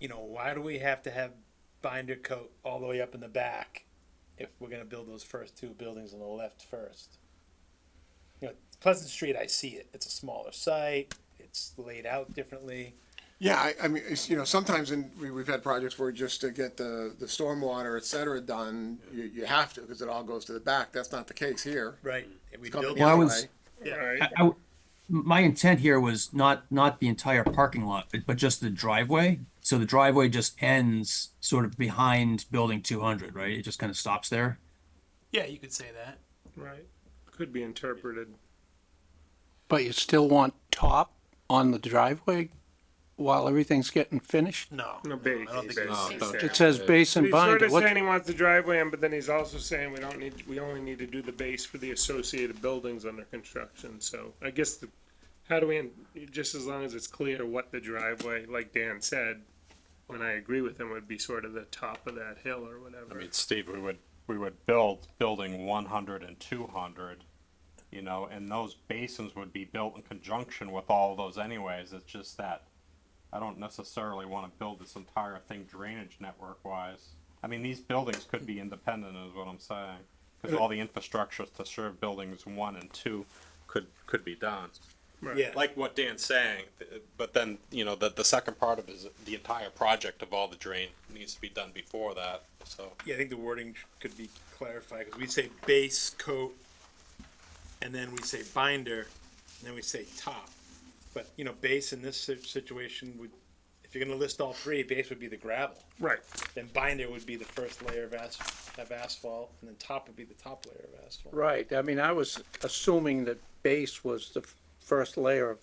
you know, why do we have to have binder coat all the way up in the back if we're going to build those first two buildings on the left first? You know, Pleasant Street, I see it. It's a smaller site. It's laid out differently. Yeah, I, I mean, it's, you know, sometimes in, we, we've had projects where just to get the, the stormwater, et cetera, done, you, you have to, because it all goes to the back. That's not the case here. Right. If we Coming build the Well, I other it, was- way. yeah. I- I w- my intent here was not, not the entire parking lot, but- but just the driveway. So the driveway just ends sort of behind building two hundred, right? It just kind of stops there. Yeah, you could say that. Right. Could be interpreted. But you still want top on the driveway while everything's getting finished? No. No, base. I don't think base. it's- It says base and He's sort binder. of saying What, he wants the driveway in, but then he's also saying we don't need, we only need to do the base for the associated buildings under construction, so I guess the, how do we, en- just as long as it's clear what the driveway, like Dan said, and I agree with him, would be sort of the top of that hill or I whatever. mean, Steve, we would, we would build building 100 and 200, you know, and those basins would be built in conjunction with all those anyways. It's just that I don't necessarily want to build this entire thing drainage network wise. I mean, these buildings could be independent is what I'm saying. Because all the infrastructure to serve buildings one and two could, could be done. Right. Yeah. Like what Dan's saying, th- but then, you know, the, the second part of it is the entire project of all the drain needs to be done before that, so. Yeah, I think the wording could be clarified, because we say base coat, and then we say binder, and then we say top. But, you know, base in this si- situation would, if you're gonna list all three, base would be the gravel. Right, Then binder would be the first layer of as, of asphalt, and then top would be the top layer of asphalt. right, I mean, I was assuming that base was the f- first layer of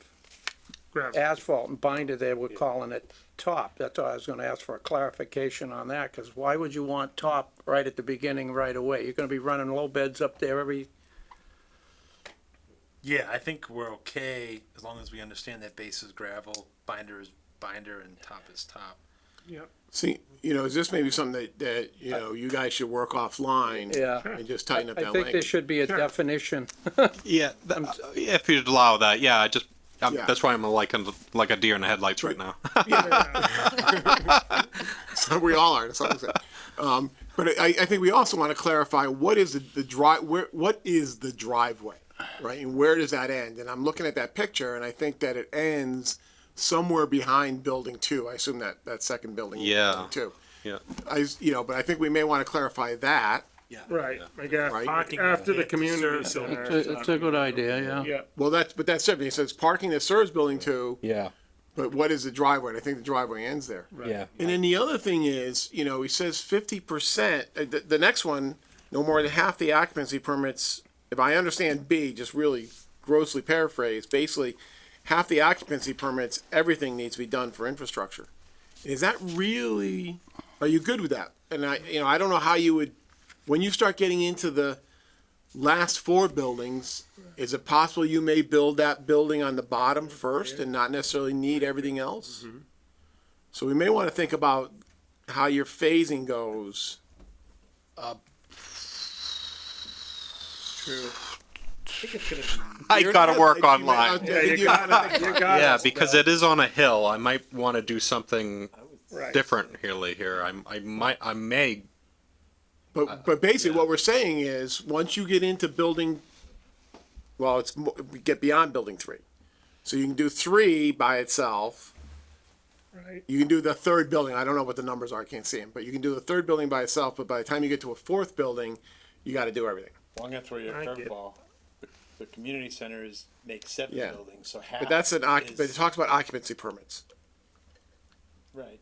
gravel. asphalt and binder, they were calling it top. That's why I was gonna ask for a clarification on that, cause why would you want top right at the beginning right away? You're gonna be running low beds up there every, Yeah, I think we're okay, as long as we understand that base is gravel, binder is binder, and top is top. See, you know, is this maybe something that, that, you know, you guys should work offline? Yeah. And just tighten up I that think there language? should be a definition. Yeah, that, if you'd allow that, yeah. I just I'm, Yeah. that's why I'm like a, like a deer in the headlights right now. We all are, that's all I'm saying. Um, but I, I think we also want to clarify, what is the, the drive, where, what is the driveway? Right, and where does that end? And I'm looking at that picture and I think that it ends somewhere behind building two. I assume that, that second building. is Yeah. Building Two. yeah, I, you know, but I think we may want to clarify that. Right, I guess, Right. park- after the community It's center. a- it's a good idea, yeah. Yeah, Well, that's, but that's it. He says parking that serves building two, yeah, but what is the driveway? And I think the driveway ends there. yeah. And then the other thing is, you know, he says fifty percent, uh, the, the next one, no more than half the occupancy permits, if I understand B, just really grossly paraphrased, basically, half the occupancy permits, everything needs to be done for infrastructure. Is that really, are you good with that? And I, you know, I don't know how you would, when you start getting into the last four buildings, is it possible you may build that building on the bottom first and not necessarily need everything else? So we may want to think about how your phasing goes. true. I think it's gonna be, I You're gotta not- work you might online. not- Yeah, you you got it, you got it. Yeah, because it is on a hill. I might want to do something Right. different here. Lee, Here, I, I might, I may. But, but basically, what we're saying is, once you get into building, well, it's, mo- we get beyond building three. So you can do three by itself. Right. You can do the third building. I don't know what the numbers are. I can't see them. But you can do the third building by itself. But by the time you get to a fourth building, you got to do everything. well, I'm gonna throw you a I get- curveball. The community center is, makes seven Yeah. buildings, so half. But that's an occup, but it is- talks about occupancy permits. Right.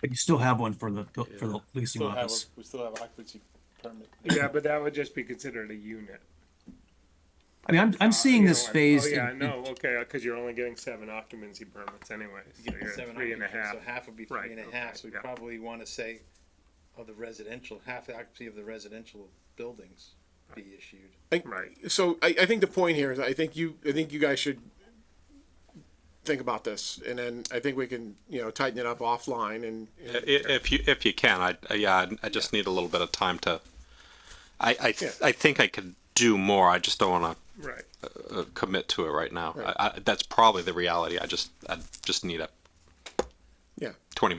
But you still have one for the, for the leasing Still have, office. a- we still have occupancy permit. Yeah, but that would just be considered a unit. I mean, I'm, I'm seeing You this know, I- phased. Oh, yeah, in- no, okay, because you're only getting seven occupancy permits anyways. So you're at Seven three and a occupancy, half. So half would be three Right, and a okay, half, so we yeah. probably wanna say of the residential, half the occupancy of the residential buildings be issued. I- Right. so I, I think the point here is I think you I think you guys should think about this, and then I think we can you know tighten it up offline and. and- If you, if you can, I, I- yeah, I- I just need a little bit of time to. I, I, th- I think I could do more. I just don't want Right. to uh, commit to it right now. I, I, that's probably the reality. I just, I just need a Yeah. twenty